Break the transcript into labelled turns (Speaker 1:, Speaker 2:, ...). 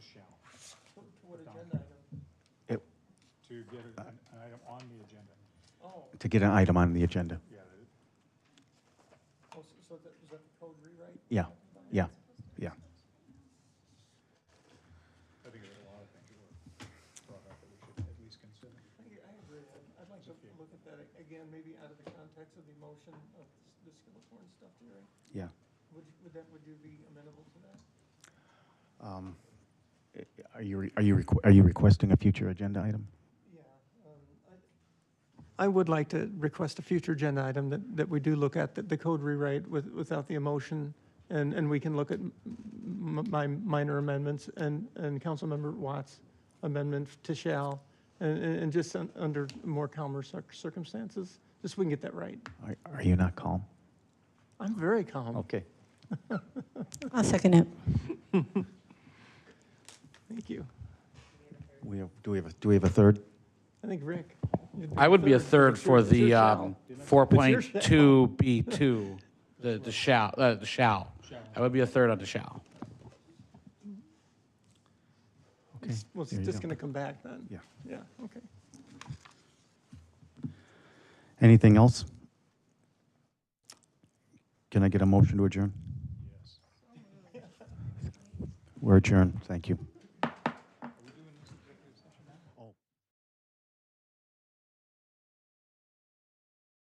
Speaker 1: What agenda item?
Speaker 2: to get an an item on the agenda.
Speaker 1: Oh,
Speaker 3: to get an item on the agenda.
Speaker 2: Yeah, the-
Speaker 1: oh, so so that, was that the code rewrite?
Speaker 3: Yeah, yeah, yeah.
Speaker 2: I think there's a lot of things that were brought up that we should at least consider.
Speaker 1: I I agree. I'd- I'd like to look at that a- again, maybe out of the context of the motion of s- the Skillicorn stuff, Jerry.
Speaker 3: Yeah.
Speaker 1: Would, would that, would you be amenable to that?
Speaker 3: Um, i- Are you, re- are you, requ- are you requesting a future agenda item?
Speaker 1: Yeah. um, I would like to request a future agenda item that, that we do look at, the, the code rewrite with, without the emotion. And, and we can look at m- m- my minor amendments and, and Councilmember Watts' amendment to shall. And, and and just un- under more calmer cir- circumstances, just so we can get that right.
Speaker 3: Are, are you not calm?
Speaker 1: I'm very
Speaker 4: Oh.
Speaker 1: calm.
Speaker 3: Okay.
Speaker 5: I'll second it.
Speaker 1: Thank you.
Speaker 3: We have, do we have, a do we have a third?
Speaker 1: I think Rick. you'd
Speaker 4: I would be a third
Speaker 1: It's your-
Speaker 4: for
Speaker 1: it's your
Speaker 4: the
Speaker 1: shall.
Speaker 4: um,
Speaker 1: your shall.
Speaker 4: 4.2B2, the the shall, uh, the shall. I would be a third on the shall.
Speaker 3: Okay.
Speaker 1: Well, it's
Speaker 3: there you
Speaker 1: just
Speaker 3: go.
Speaker 1: going to come back then.
Speaker 3: Yeah.
Speaker 1: Yeah, okay.
Speaker 3: Anything else? Can I get a motion to adjourn? We're adjourned, thank you.